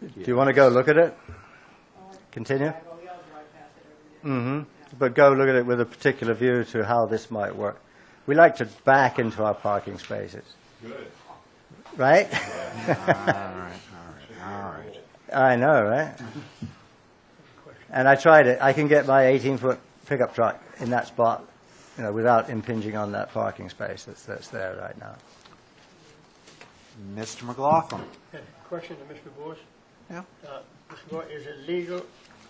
Do you want to go look at it? Continue? Well, we all drive past it every day. hmm But go look at it with a particular view to how this might work. We like to back into our parking spaces. Good. Right? All right. I know, right? And I tried it. I can get my 18-foot pickup truck in that spot, you know, without impinging on that parking space that's, that's there right now. Mr. McLaughlin? Yeah, Question to Mr. Boyce. Yeah. Uh, Mr. Boyce, is it legal,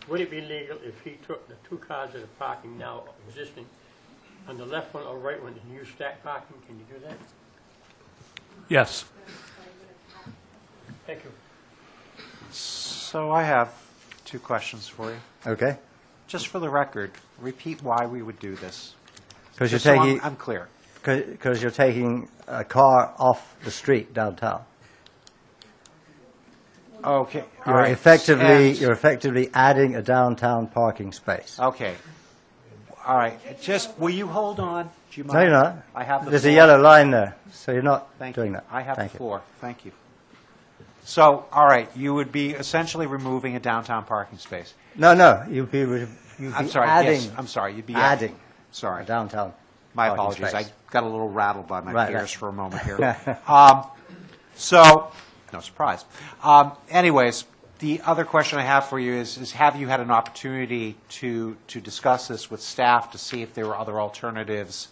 would it be legal if he took the two cars that are parking now existing on the left one or right one and you stack parking? Can you do that? Yes. Thank you. So I have two questions for you. Okay? Just for the record, repeat why we would do this. Because you're Just so I'm- taking, I'm clear. because you're taking a car off the street downtown. Okay. all You're right. effectively, And- Uh, you're effectively adding a downtown parking space. Okay. All right. Just, will you hold on? Do you mind? No, you're not. I have the There's a floor. yellow line there, so you're not Thank doing you. that. I have the Thank you. floor. Thank you. So, all right, you would be essentially removing a downtown parking space. No, no, you'd be, re- you'd I'm be sorry, adding. yes, I'm sorry, you'd be add- Adding. Sorry. a Downtown. My parking apologies. I space. got a little rattled by my Oh, Right, peers right. for a moment here. Um, So, no surprise. Um, Anyways, the other question I have for you is, is have you had an opportunity to, to discuss this with staff to see if there were other alternatives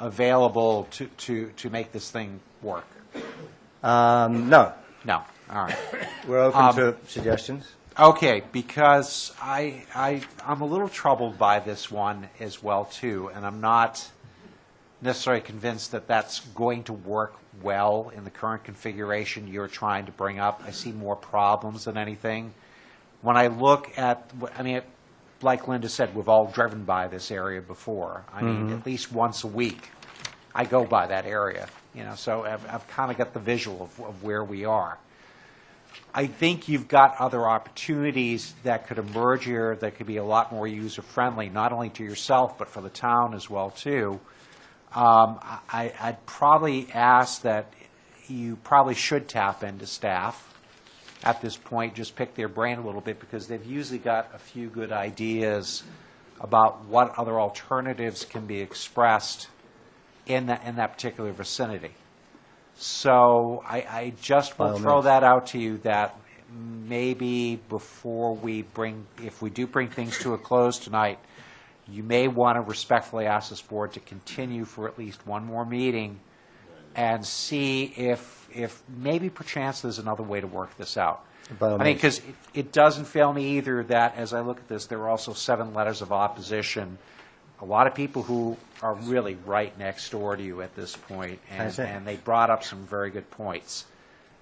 available to, to, to make this thing work? Um, no, No, all right. we're open Um, to suggestions. Okay, because I, I, I'm a little troubled by this one as well, too, and I'm not necessarily convinced that that's going to work well in the current configuration you're trying to bring up. I see more problems than anything. When I look at, I mean, like Linda said, we've all driven by this area before. I mean, at least once a week, I go by that area, you know, so I've, I've kind of got the visual of, of where we are. I think you've got other opportunities that could emerge here that could be a lot more user-friendly, not only to yourself, but for the town as well, too. Um, I, I'd probably ask that you probably should tap into staff at this point, just pick their brain a little bit, because they've usually got a few good ideas about what other alternatives can be expressed in that, in that particular vicinity. So I, I just By all will throw means. that out to you, that maybe before we bring, if we do bring things to a close tonight, you may want to respectfully ask this board to continue for at least one more meeting and see if, if maybe perchance there's another way to work this out. By all I mean, means. because it doesn't fail me either that, as I look at this, there are also seven letters of opposition. A lot of people who are really right next door to you at this point, and, That's it. and they brought up some very good points.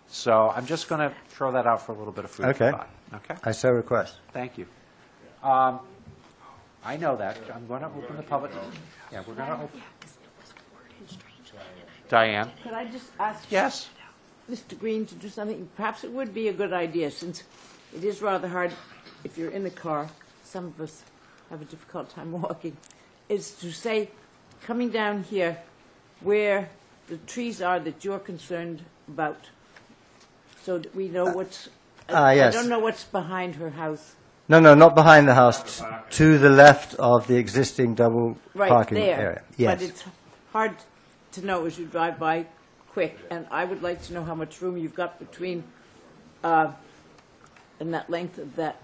So I'm just going to throw that out for a little bit of food for Okay. thought. Okay? I so request. Thank you. Um, I know that. I'm going to open the public. Yeah, we're going to open. Diane? Could I just ask? Yes? Mr. Green to do something? Perhaps it would be a good idea, since it is rather hard, if you're in the car, some of us have a difficult time walking, is to say, coming down here, where the trees are that you're concerned about, so that we know what's, ah, I- I yes. don't know what's behind her house. No, no, not behind the house, t- to the left of the existing double Right parking there. area. But Yes. it's hard to know as you drive by quick, and I would like to know how much room you've got between, uh, in that length of that.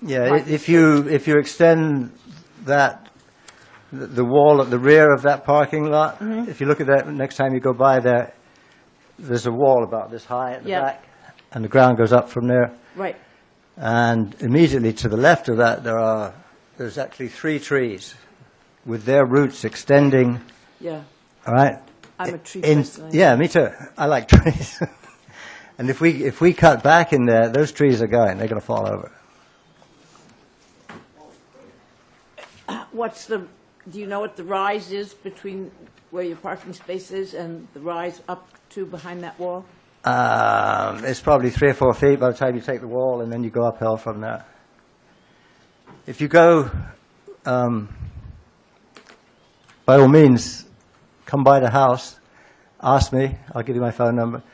Yeah, i- if you, if you extend that, th- the wall at the rear of that parking lot, Mm-hmm. if you look at that next time you go by there, there's a wall about this high at the Yeah. back, and the ground goes up from there. Right, And immediately to the left of that, there are, there's actually three trees with their roots extending, yeah. all right? I'm a tree In- person. Yeah, me too. I like trees. and if we, if we cut back in there, those trees are going, they're going to fall over. What's the, do you know what the rise is between where your parking space is and the rise up to behind that wall? Um, it's probably three or four feet by the time you take the wall, and then you go uphill from there. If you go, um, by all means, come by the house, ask me. I'll give you my phone number.